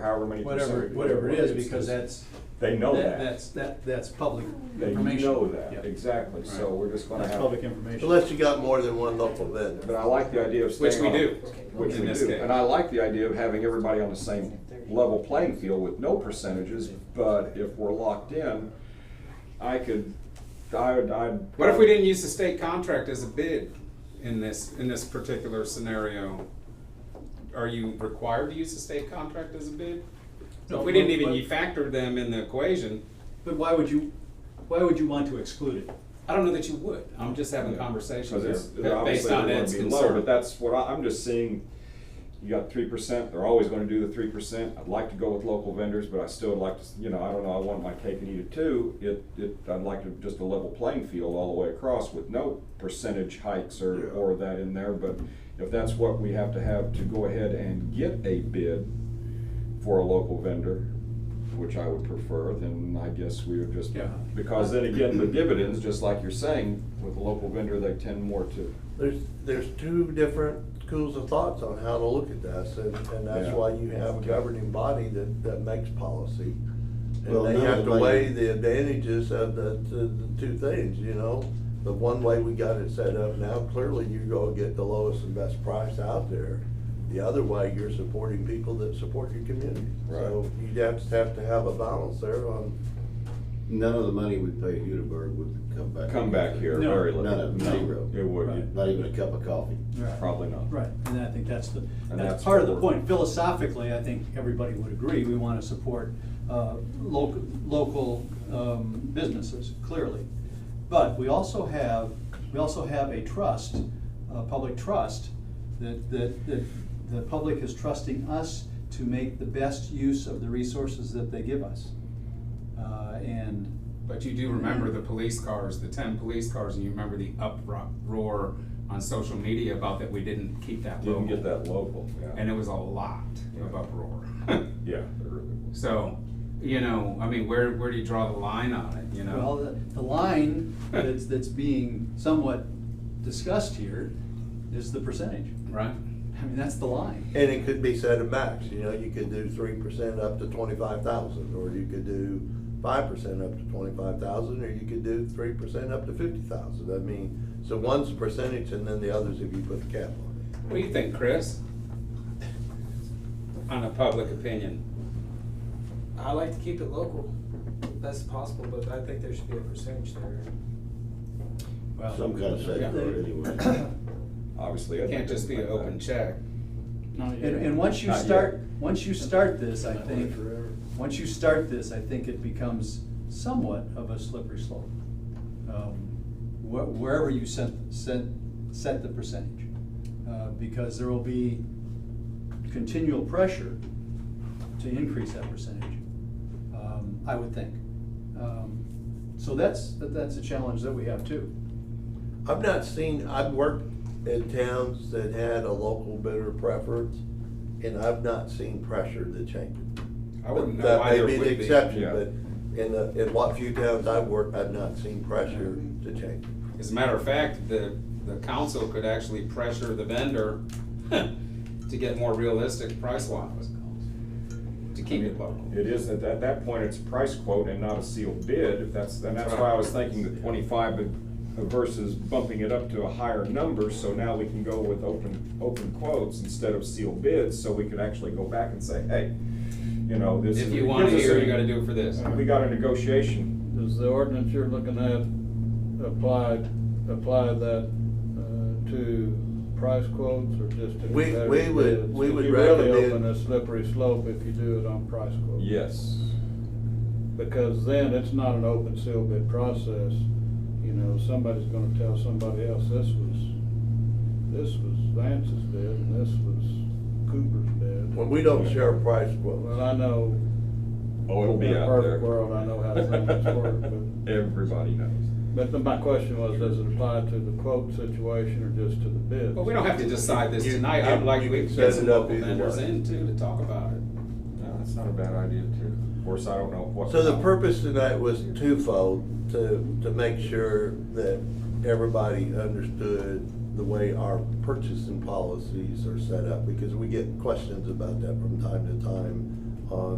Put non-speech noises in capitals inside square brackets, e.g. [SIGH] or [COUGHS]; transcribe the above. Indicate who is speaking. Speaker 1: however many percent.
Speaker 2: whatever,
Speaker 1: of
Speaker 2: whatever it
Speaker 1: what
Speaker 2: is, because that's.
Speaker 1: They know that.
Speaker 2: That's, that, that's public
Speaker 1: They
Speaker 2: information.
Speaker 1: know that,
Speaker 2: Yeah.
Speaker 1: exactly, so
Speaker 3: Right.
Speaker 1: we're just gonna
Speaker 3: That's
Speaker 1: have.
Speaker 3: public information.
Speaker 4: Unless you got more than one local vendor.
Speaker 1: But I like the idea of
Speaker 5: Which
Speaker 1: staying
Speaker 5: we
Speaker 1: on-
Speaker 5: do,
Speaker 1: Which
Speaker 5: in
Speaker 1: we
Speaker 5: this
Speaker 1: do,
Speaker 5: case.
Speaker 1: and I like the idea of having everybody on the same level playing field with no percentages, but if we're locked in, I could, I would, I'd.
Speaker 5: What if we didn't use the state contract as a bid in this, in this particular scenario? Are you required to use the state contract as a bid?
Speaker 2: No,
Speaker 5: If we didn't
Speaker 2: but-
Speaker 5: even,
Speaker 2: but-
Speaker 5: you factored them in the equation,
Speaker 2: But why would you, why would you want to exclude it?
Speaker 5: I don't know that you would, I'm just having
Speaker 1: Because it's-
Speaker 5: conversations
Speaker 1: they're
Speaker 5: based
Speaker 1: obviously
Speaker 5: on
Speaker 1: they're gonna
Speaker 5: Ed's
Speaker 1: be lower, But
Speaker 5: concern.
Speaker 1: that's what I, I'm just seeing, you got three percent, they're always gonna do the three percent. I'd like to go with local vendors, but I still would like to, s- you know, I don't know, I want my cake and eat it too. It, it, I'd like to, just a level playing field all the way across with no percentage hikes or,
Speaker 4: Yeah.
Speaker 1: or that in there. But if that's what we have to have to go ahead and get a bid for a local vendor, which I would prefer, then I guess we would just,
Speaker 2: Yeah.
Speaker 1: because then again, the dividends, just like you're saying, with a local vendor, they tend more to
Speaker 4: There's, there's two different schools of thoughts on how to look at this, and, and that's
Speaker 1: Yeah.
Speaker 4: why you have a governing body that, that makes policy.
Speaker 6: Well,
Speaker 4: And they
Speaker 6: none
Speaker 4: have
Speaker 6: of
Speaker 4: to
Speaker 6: them-
Speaker 4: weigh the advantages of the, the, the two things, you know? The one way we got it set up now, clearly you go get the lowest and best price out there. The other way, you're supporting people that support your community. So you have to have to have a balance there on,
Speaker 6: None of the money we pay Hudaburg would come back.
Speaker 1: come back here
Speaker 2: No.
Speaker 1: very
Speaker 6: None
Speaker 1: little.
Speaker 6: of, zero.
Speaker 1: It would,
Speaker 6: Not even a cup of coffee.
Speaker 1: probably not.
Speaker 2: Right, and I think that's the,
Speaker 1: that's
Speaker 2: that's part of the
Speaker 1: what we're-
Speaker 2: point. Philosophically, I think everybody would agree, we want to support uh, local, local um, businesses, clearly. But we also have, we also have a trust, a public trust, that, that, that the public is trusting us to make the best use of the resources that they give us. Uh, And
Speaker 5: But you do remember the police cars, the ten police cars, and you remember the uproar on social media about that we didn't keep that local.
Speaker 1: Didn't get that local,
Speaker 5: And
Speaker 1: yeah.
Speaker 5: it was a lot of uproar. [LAUGHS]
Speaker 1: Yeah. it really was.
Speaker 5: So, you know, I mean, where, where do you draw the line on it, you
Speaker 2: Well,
Speaker 5: know?
Speaker 2: the- the line that's, that's being somewhat discussed here is the percentage.
Speaker 5: Right?
Speaker 2: I mean, that's the line.
Speaker 4: and it could be set at max, you know, you could do three percent up to twenty-five thousand, or you could do five percent up to twenty-five thousand, or you could do three percent up to fifty thousand, I mean, so one's percentage and then the other's if you put the cap on it.
Speaker 5: What do you think, Chris? On a public opinion?
Speaker 7: I like to keep it local, best possible, but I think there should be a percentage there.
Speaker 6: Some kind of safe word anyway.
Speaker 1: [COUGHS] Obviously. I
Speaker 5: It can't
Speaker 1: think
Speaker 5: just be an
Speaker 1: like
Speaker 5: open
Speaker 1: that.
Speaker 5: check.
Speaker 2: And, and once you
Speaker 1: Not yet.
Speaker 2: start, once you start this, I think, once you start this, I think it becomes somewhat of a slippery slope. Um, wh- Wherever you set, set, set the percentage, uh, because there will be continual pressure to increase that percentage, um, I would think. Um, So that's, that's a challenge that we have too.
Speaker 4: [COUGHS] I've not seen, I've worked in towns that had a local bidder preference, and I've not seen pressure to change it.
Speaker 5: I wouldn't know
Speaker 4: That may
Speaker 5: either
Speaker 4: be the
Speaker 5: would be.
Speaker 4: exception,
Speaker 1: yeah.
Speaker 4: but in the, in what few towns I've worked, I've not seen pressure to change it.
Speaker 5: As a matter of fact, the, the council could actually pressure the vendor [LAUGHS] to get more realistic price wise. To keep it local.
Speaker 1: It is, at that, that point, it's a price quote and not a sealed bid, if that's, and that's why I was thinking the twenty-five uh, versus bumping it up to a higher number, so now we can go with open, open quotes instead of sealed bids, so we could actually go back and say, hey, you know, this.
Speaker 5: If
Speaker 1: is-
Speaker 5: you
Speaker 1: it
Speaker 5: want to
Speaker 1: gives us
Speaker 5: hear,
Speaker 1: a- Uh,
Speaker 5: you gotta do it for
Speaker 4: Uh,
Speaker 5: this.
Speaker 1: We got a negotiation
Speaker 8: Does the ordinance you're looking at apply, apply that uh, to price quotes or just to?
Speaker 4: We- we
Speaker 8: competitive
Speaker 4: would-
Speaker 8: bids?
Speaker 4: we would
Speaker 8: You really
Speaker 4: recommend-
Speaker 8: open a slippery slope if you do it on price quotes.
Speaker 1: Yes.
Speaker 8: Because then it's not an open seal bid process. You know, somebody's gonna tell somebody else, this was, this was Vance's bid and this was Cooper's bid.
Speaker 4: When we don't share price quotes.
Speaker 8: Well, I know,
Speaker 1: Oh, it'll be
Speaker 8: in a
Speaker 1: out there.
Speaker 8: perfect world, I know how things work,
Speaker 1: [LAUGHS]
Speaker 8: but-
Speaker 1: Everybody knows.
Speaker 8: but my question was, does it apply to the quote situation or just to the bids?
Speaker 5: But we don't have to decide this
Speaker 4: You-
Speaker 5: tonight, I'd
Speaker 4: you-
Speaker 5: like
Speaker 4: you
Speaker 5: we
Speaker 4: can
Speaker 5: could
Speaker 4: set
Speaker 5: get some
Speaker 4: it up
Speaker 5: local
Speaker 4: either
Speaker 5: vendors
Speaker 4: way.
Speaker 5: in too to talk about it.
Speaker 1: No, that's not a bad idea too. Of course, I don't know what.
Speaker 4: So the purpose tonight was twofold, to, to make sure that everybody understood the way our purchasing policies are set up, because we get questions about that from time to time on